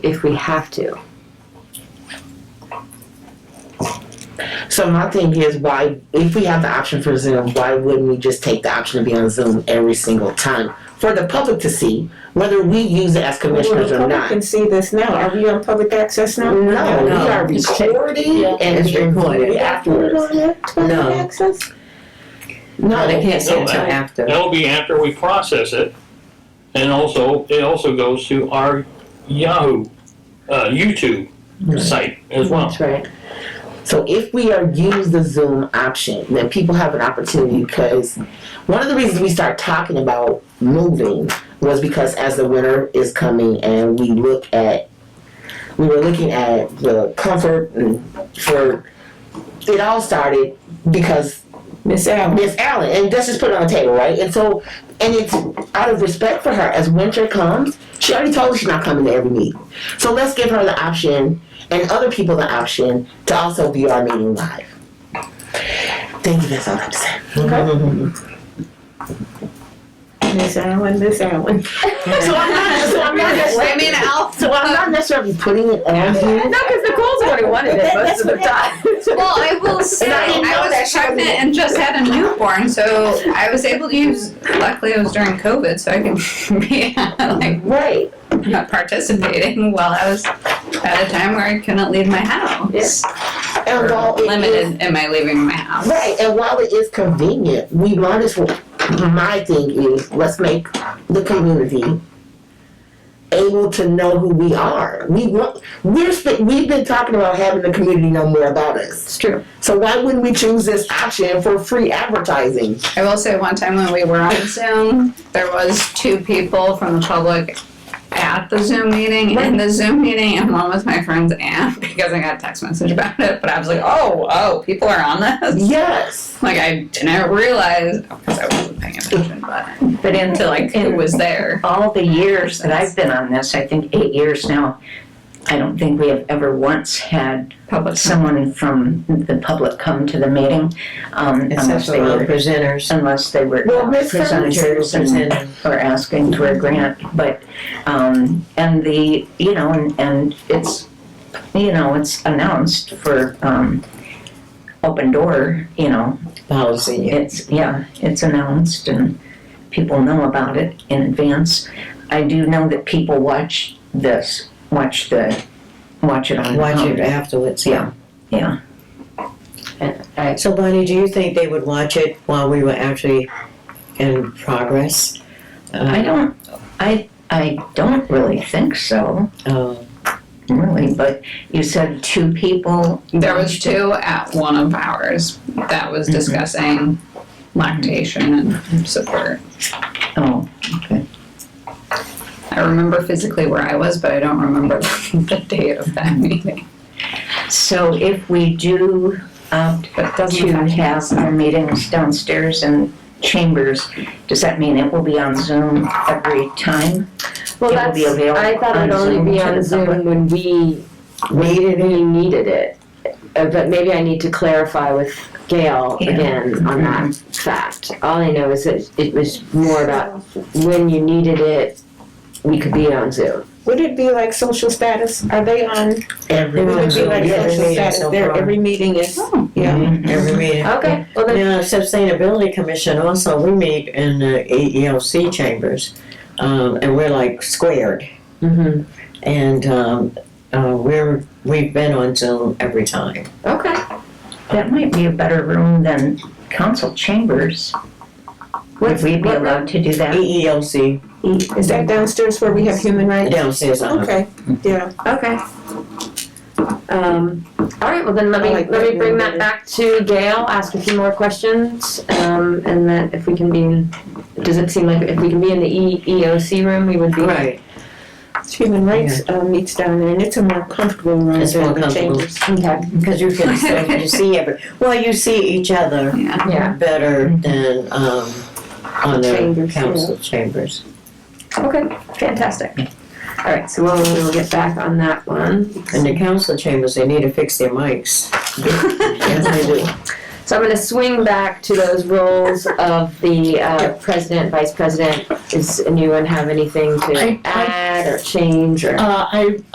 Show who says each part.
Speaker 1: if we have to.
Speaker 2: So my thing is, why if we have the option for Zoom, why wouldn't we just take the option to be on Zoom every single time for the public to see whether we use it as
Speaker 3: Well,
Speaker 2: commissioners
Speaker 3: the
Speaker 2: or
Speaker 3: public
Speaker 2: not?
Speaker 3: can see this now. Are we on public access now?
Speaker 2: No, we
Speaker 4: No.
Speaker 2: are recording
Speaker 4: Yeah,
Speaker 2: and
Speaker 4: it's recorded
Speaker 2: we
Speaker 3: Put it
Speaker 2: afterwards.
Speaker 3: on there, public
Speaker 4: No.
Speaker 3: access?
Speaker 4: No, they
Speaker 2: No,
Speaker 4: can't see it until after.
Speaker 5: That'll be after we process it, and also, it also goes to our Yahoo, uh, YouTube site as well.
Speaker 1: That's right.
Speaker 2: so if we are use the Zoom option, then people have an opportunity because one of the reasons we start talking about moving was because as the winter is coming and we look at we were looking at the comfort and for it all started because
Speaker 3: Miss Allen,
Speaker 2: Miss Allen, and let's just put it on the table, right? And so, and it's out of respect for her. As winter comes, she already told us she's not coming to every meeting. So let's give her the option and other people the option to also view our meeting live. Thank you. That's all I have to say.
Speaker 3: Miss Allen, Miss Allen.
Speaker 2: So I'm not. So I'm not.
Speaker 1: Wait a
Speaker 2: necessarily-
Speaker 1: minute, I'll.
Speaker 2: So I'm not necessarily putting it on
Speaker 1: No,
Speaker 2: you.
Speaker 1: because Nicole's the one who wanted it most of the time.
Speaker 6: Well, I will say,
Speaker 2: And I
Speaker 6: I,
Speaker 2: didn't know that
Speaker 6: was
Speaker 2: she was-
Speaker 6: pregnant and just had a newborn, so I was able to use. Luckily, it was during COVID, so I could be like
Speaker 2: Right.
Speaker 6: not participating while I was at a time where I couldn't leave my house.
Speaker 2: And while it is-
Speaker 6: Limited in my leaving my house.
Speaker 2: Right, and while it is convenient, we want this. My thing is, let's make the community able to know who we are. We want. We're sp- we've been talking about having the community know more about us.
Speaker 1: It's true.
Speaker 2: So why wouldn't we choose this option for free advertising?
Speaker 6: I will say one time when we were on Zoom, there was two people from the public at the Zoom meeting, in the Zoom meeting, and one was my friend's aunt because I got a text message about it. But I was like, oh, oh, people are on this.
Speaker 2: Yes.
Speaker 6: Like I didn't realize because I wasn't paying attention, but
Speaker 4: But in
Speaker 6: to like who was there.
Speaker 4: all the years that I've been on this, I think eight years now, I don't think we have ever once had
Speaker 6: Public.
Speaker 4: someone from the public come to the meeting, um, unless they were presenters, unless they were
Speaker 2: Well,
Speaker 4: uh,
Speaker 2: Miss
Speaker 4: presenters and, or asking for a grant, but, um, and the, you know, and, and it's, you know, it's announced for, um, open door, you know,
Speaker 2: Policy.
Speaker 4: it's, yeah, it's announced and people know about it in advance. I do know that people watch this, watch the, watch it on.
Speaker 7: Watch it afterwards, yeah.
Speaker 4: Yeah.
Speaker 7: So Bonnie, do you think they would watch it while we were actually in progress? Uh,
Speaker 4: I don't, I, I don't really think so,
Speaker 7: Oh,
Speaker 4: really, but you said two people.
Speaker 6: There was two at one of ours that was
Speaker 4: Mm-hmm.
Speaker 6: discussing lactation and support.
Speaker 4: Oh,
Speaker 6: I remember physically where I was, but I don't remember the date of that meeting.
Speaker 4: so if we do opt
Speaker 6: But it doesn't
Speaker 4: to
Speaker 6: affect
Speaker 4: have our meetings downstairs in chambers, does that mean it will be on Zoom every time?
Speaker 1: Well,
Speaker 4: It will
Speaker 1: that's,
Speaker 4: be available
Speaker 1: I thought
Speaker 4: on
Speaker 1: it'd
Speaker 4: Zoom
Speaker 1: only be
Speaker 4: to
Speaker 1: on
Speaker 4: the
Speaker 1: Zoom
Speaker 4: public.
Speaker 1: when we needed it. We needed it. Uh, But maybe I need to clarify with Gail
Speaker 4: Yeah.
Speaker 1: again on that fact. All I know is that it was more about when you needed it, we could be on Zoom.
Speaker 3: Would it be like social status? Are they on?
Speaker 2: Every.
Speaker 3: Would it be like
Speaker 7: Yeah,
Speaker 3: social
Speaker 7: yeah,
Speaker 3: status?
Speaker 7: so
Speaker 3: There,
Speaker 7: far.
Speaker 3: every meeting is,
Speaker 6: Oh.
Speaker 3: yeah.
Speaker 7: every meeting.
Speaker 1: Okay, well then,
Speaker 7: Now, Sustainability Commission also, we meet in the E EEOC chambers, um, and we're like squared.
Speaker 1: Mhm.
Speaker 7: And, um, uh, we're, we've been on Zoom every time.
Speaker 1: okay.
Speaker 4: That might be a better room than council chambers. Would we be
Speaker 1: what room?
Speaker 4: allowed to do that?
Speaker 7: E EEOC
Speaker 3: Is that downstairs where we have human rights?
Speaker 7: downstairs, uh,
Speaker 3: Okay, yeah.
Speaker 1: Okay. Um, all right, well then let
Speaker 3: I
Speaker 1: me,
Speaker 3: like
Speaker 1: let
Speaker 3: that
Speaker 1: me bring that
Speaker 3: one better.
Speaker 1: back to Gail, ask a few more questions, um, and then if we can be in, does it seem like if we can be in the E, EOC room, we would be.
Speaker 7: right.
Speaker 3: Human rights uh, meets down there and it's a more comfortable room
Speaker 7: It's
Speaker 3: than
Speaker 7: more
Speaker 3: the
Speaker 7: comfortable.
Speaker 3: chambers.
Speaker 1: Okay,
Speaker 7: Because you can, so you see every, well, you see each other
Speaker 6: Yeah.
Speaker 1: yeah,
Speaker 7: better than, um, on the
Speaker 3: Chambers, yeah.
Speaker 7: council chambers.
Speaker 1: okay, fantastic. All right, so we'll, we'll get back on that one.
Speaker 7: In the council chambers, they need to fix their mics. Yes, they do.
Speaker 1: So I'm gonna swing back to those roles of the, uh, president, vice president. Does anyone have anything
Speaker 8: I-
Speaker 1: to
Speaker 8: I-
Speaker 1: add or change or?
Speaker 8: Uh, I